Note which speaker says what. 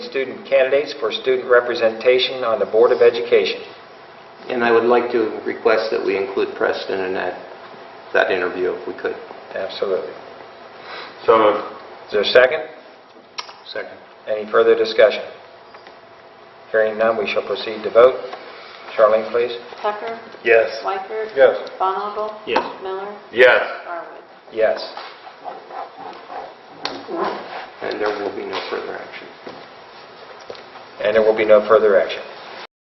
Speaker 1: student candidates for student representation on the Board of Education.
Speaker 2: And I would like to request that we include Preston in that, that interview if we could.
Speaker 1: Absolutely.
Speaker 3: So moved.
Speaker 1: Is there a second?
Speaker 3: Second.
Speaker 1: Any further discussion? Hearing none, we shall proceed to vote. Charlene, please.
Speaker 4: Tucker?
Speaker 3: Yes.
Speaker 4: Wyker?
Speaker 3: Yes.
Speaker 4: Bonnagle?
Speaker 3: Yes.
Speaker 4: Miller?
Speaker 3: Yes.
Speaker 4: Arwood?
Speaker 1: Yes.
Speaker 2: And there will be no further action.
Speaker 1: And there will be no further action.